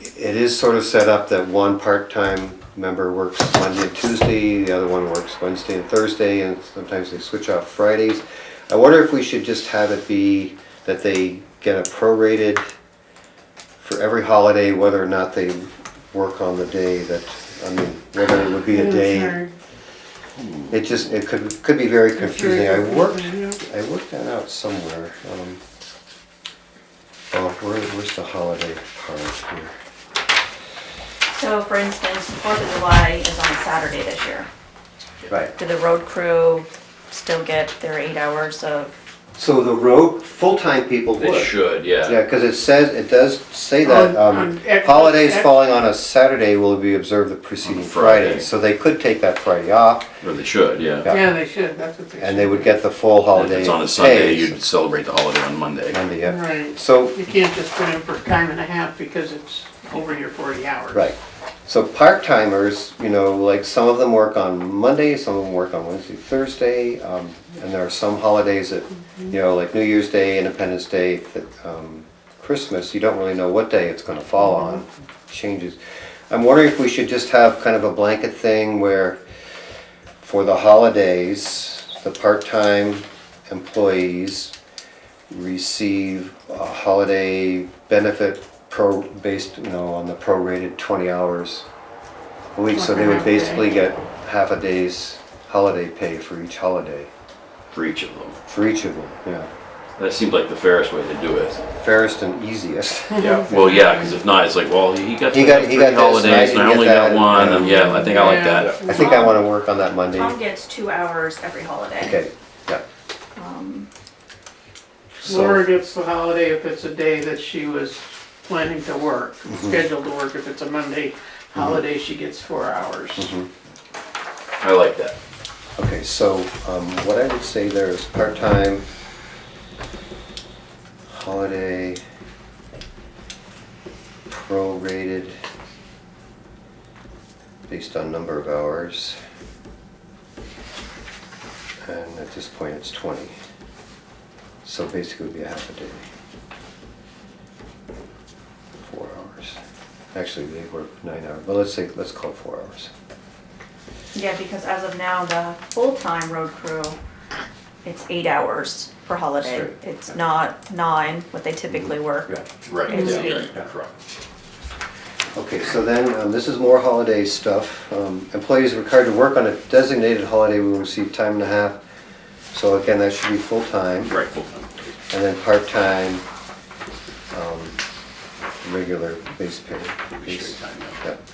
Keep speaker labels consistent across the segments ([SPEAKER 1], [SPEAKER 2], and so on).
[SPEAKER 1] it is sort of set up that one part-time member works Monday and Tuesday, the other one works Wednesday and Thursday, and sometimes they switch off Fridays. I wonder if we should just have it be that they get a prorated for every holiday, whether or not they work on the day that, I mean, whether it would be a day. It just, it could, could be very confusing. I worked, I worked that out somewhere. um, Oh, where, where's the holiday part here?
[SPEAKER 2] So for instance, Fourth of July is on Saturday this year.
[SPEAKER 1] Right.
[SPEAKER 2] Do the road crew still get their eight hours of,
[SPEAKER 1] So the road, full-time people would.
[SPEAKER 3] They should,
[SPEAKER 1] Yeah,
[SPEAKER 3] yeah.
[SPEAKER 1] because it says, it does say that, um,
[SPEAKER 4] On- on e- ex-
[SPEAKER 1] holidays
[SPEAKER 4] ex-
[SPEAKER 1] falling on a Saturday will be observed the preceding
[SPEAKER 3] Friday.
[SPEAKER 1] Friday. So they could take that Friday off,
[SPEAKER 3] Or they should, yeah.
[SPEAKER 1] Yeah.
[SPEAKER 4] Yeah, they should, that's what they should.
[SPEAKER 1] and they would get the full
[SPEAKER 3] If
[SPEAKER 1] holiday.
[SPEAKER 3] it's on a Sunday,
[SPEAKER 1] pay,
[SPEAKER 3] you'd celebrate the holiday on Monday.
[SPEAKER 1] Monday, yeah.
[SPEAKER 4] Right,
[SPEAKER 1] So,
[SPEAKER 4] you can't just put in for time and a half because it's over your forty hours.
[SPEAKER 1] right, so part-timers, you know, like, some of them work on Monday, some of them work on Wednesday, Thursday, um, and there are some holidays that, you know, like New Year's Day, Independence Day, that, um, Christmas, you don't really know what day it's gonna fall on, changes. I'm wondering if we should just have kind of a blanket thing where for the holidays, the part-time employees receive a holiday benefit pro, based, you know, on the prorated twenty hours a week, so they would basically get half a day's holiday pay for each holiday,
[SPEAKER 3] For each of them.
[SPEAKER 1] for each of them, yeah.
[SPEAKER 3] That seems like the fairest way to do it.
[SPEAKER 1] Fairest and easiest.
[SPEAKER 3] Yeah. Well, yeah, because if not, it's like, well, he got
[SPEAKER 1] He
[SPEAKER 3] three
[SPEAKER 1] got- he got this, and I
[SPEAKER 3] holidays, and I
[SPEAKER 1] didn't
[SPEAKER 3] only
[SPEAKER 1] get
[SPEAKER 3] got
[SPEAKER 1] that,
[SPEAKER 3] one,
[SPEAKER 1] yeah.
[SPEAKER 3] and yeah, I think I like
[SPEAKER 4] Yeah.
[SPEAKER 3] that.
[SPEAKER 1] I think I wanna work on that Monday.
[SPEAKER 2] Tom gets two hours every holiday.
[SPEAKER 1] Okay, yeah.
[SPEAKER 2] Um,
[SPEAKER 1] So-
[SPEAKER 4] Laura gets the holiday if it's a day that she was planning to work,
[SPEAKER 1] Mm-hmm.
[SPEAKER 4] scheduled to work, if it's a Monday holiday, she gets four hours.
[SPEAKER 1] Mm-hmm.
[SPEAKER 3] I like that.
[SPEAKER 1] Okay, so um, what I would say there is part-time, holiday, prorated, based on number of hours. And at this point, it's 20. So basically, it would be a half a day. Four hours. Actually, they work nine hours, but let's say, let's call it four hours.
[SPEAKER 2] Yeah, because as of now, the full-time road crew, it's eight hours per holiday.
[SPEAKER 1] Sure.
[SPEAKER 2] It's not nine, what they typically work.
[SPEAKER 1] Yeah.
[SPEAKER 3] Right.
[SPEAKER 2] It's yeah, eight.
[SPEAKER 3] correct.
[SPEAKER 1] Okay, so then, um, this is more holiday stuff. Um, Employees required to work on a designated holiday will receive time and a half. So again, that should be full-time,
[SPEAKER 3] Right, full-time.
[SPEAKER 1] and then part-time, um, regular base pay. base-
[SPEAKER 3] Straight time, yeah.
[SPEAKER 1] Yep.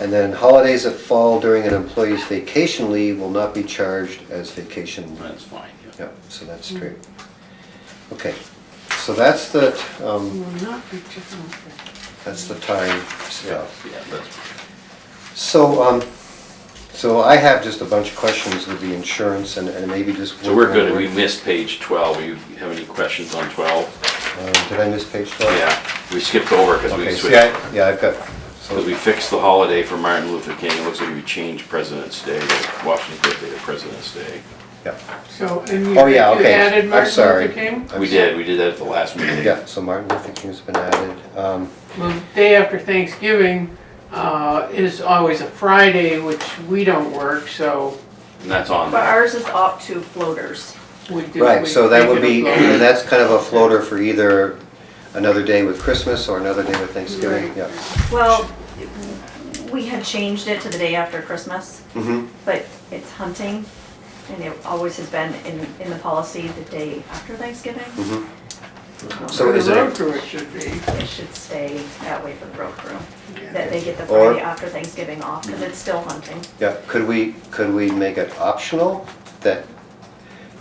[SPEAKER 1] And then holidays that fall during an employee's vacation leave will not be charged as vacation leave.
[SPEAKER 3] That's fine, yeah.
[SPEAKER 1] Yep, so that's straight. Okay, so that's the, um,
[SPEAKER 4] Will not be taken.
[SPEAKER 1] that's the time stuff.
[SPEAKER 3] Yeah, that's,
[SPEAKER 1] So, um, so I have just a bunch of questions with the insurance and, and maybe just.
[SPEAKER 3] so we're good. We missed page twelve. You have any questions on twelve?
[SPEAKER 1] Um, Did I miss page twelve?
[SPEAKER 3] Yeah, we skipped over because we
[SPEAKER 1] Okay,
[SPEAKER 3] switched.
[SPEAKER 1] see, I, yeah, I've got,
[SPEAKER 3] Because
[SPEAKER 1] so,
[SPEAKER 3] we fixed the holiday for Martin Luther King, it looks like we changed President's Day, to Washington's birthday to President's Day.
[SPEAKER 1] yeah.
[SPEAKER 4] So, and you,
[SPEAKER 1] Oh,
[SPEAKER 4] you
[SPEAKER 1] yeah, okay,
[SPEAKER 4] added
[SPEAKER 1] I'm
[SPEAKER 4] Martin
[SPEAKER 1] sorry.
[SPEAKER 4] Luther King?
[SPEAKER 1] I'm
[SPEAKER 3] We
[SPEAKER 1] sorry.
[SPEAKER 3] did, we did that at the last meeting.
[SPEAKER 1] Yeah, so Martin Luther King's been added, um,
[SPEAKER 4] Well, the day after Thanksgiving, uh, is always a Friday, which we don't work, so
[SPEAKER 3] And that's on
[SPEAKER 2] But
[SPEAKER 3] there.
[SPEAKER 2] ours is up to floaters.
[SPEAKER 4] we do.
[SPEAKER 1] right,
[SPEAKER 4] we
[SPEAKER 1] so that
[SPEAKER 4] make
[SPEAKER 1] would
[SPEAKER 4] it a
[SPEAKER 1] be,
[SPEAKER 4] blow.
[SPEAKER 1] and that's kind of a floater for either another day with Christmas or another day with Thanksgiving,
[SPEAKER 4] Right.
[SPEAKER 1] yeah.
[SPEAKER 2] Well, we had changed it to the day after Christmas,
[SPEAKER 1] Mm-hmm,
[SPEAKER 2] but it's hunting, and it always has been in, in the policy the day after Thanksgiving.
[SPEAKER 1] mm-hmm. So
[SPEAKER 4] For
[SPEAKER 1] is
[SPEAKER 4] the
[SPEAKER 1] it-
[SPEAKER 4] road crew, it should be.
[SPEAKER 2] It should stay that way for the road crew,
[SPEAKER 4] Yeah.
[SPEAKER 2] that they get the
[SPEAKER 1] Or-
[SPEAKER 2] Friday after Thanksgiving off, because it's still hunting.
[SPEAKER 1] Yeah, could we, could we make it optional that,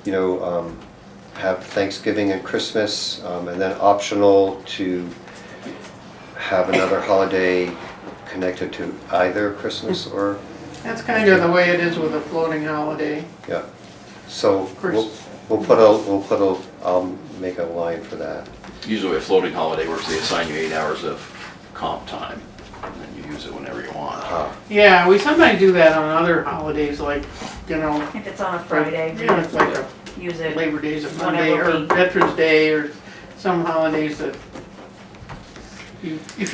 [SPEAKER 1] you know, um, have Thanksgiving and Christmas, um, and then optional to have another holiday connected to either Christmas or,
[SPEAKER 4] That's kind of the way it is with a floating holiday.
[SPEAKER 1] yeah. So we'll,
[SPEAKER 4] Christmas.
[SPEAKER 1] we'll put a, we'll put a, I'll make a line for that.
[SPEAKER 3] Usually a floating holiday works, they assign you eight hours of comp time, and then you use it whenever you want.
[SPEAKER 1] Ah,
[SPEAKER 4] Yeah, we sometimes do that on other holidays, like, you know,
[SPEAKER 2] If it's on a
[SPEAKER 4] for-
[SPEAKER 2] Friday,
[SPEAKER 4] You know, it's like a
[SPEAKER 2] use it.
[SPEAKER 4] Labor Day's a
[SPEAKER 2] Whenever
[SPEAKER 4] Monday, or
[SPEAKER 2] we-
[SPEAKER 4] Veterans Day, or some holidays that you, if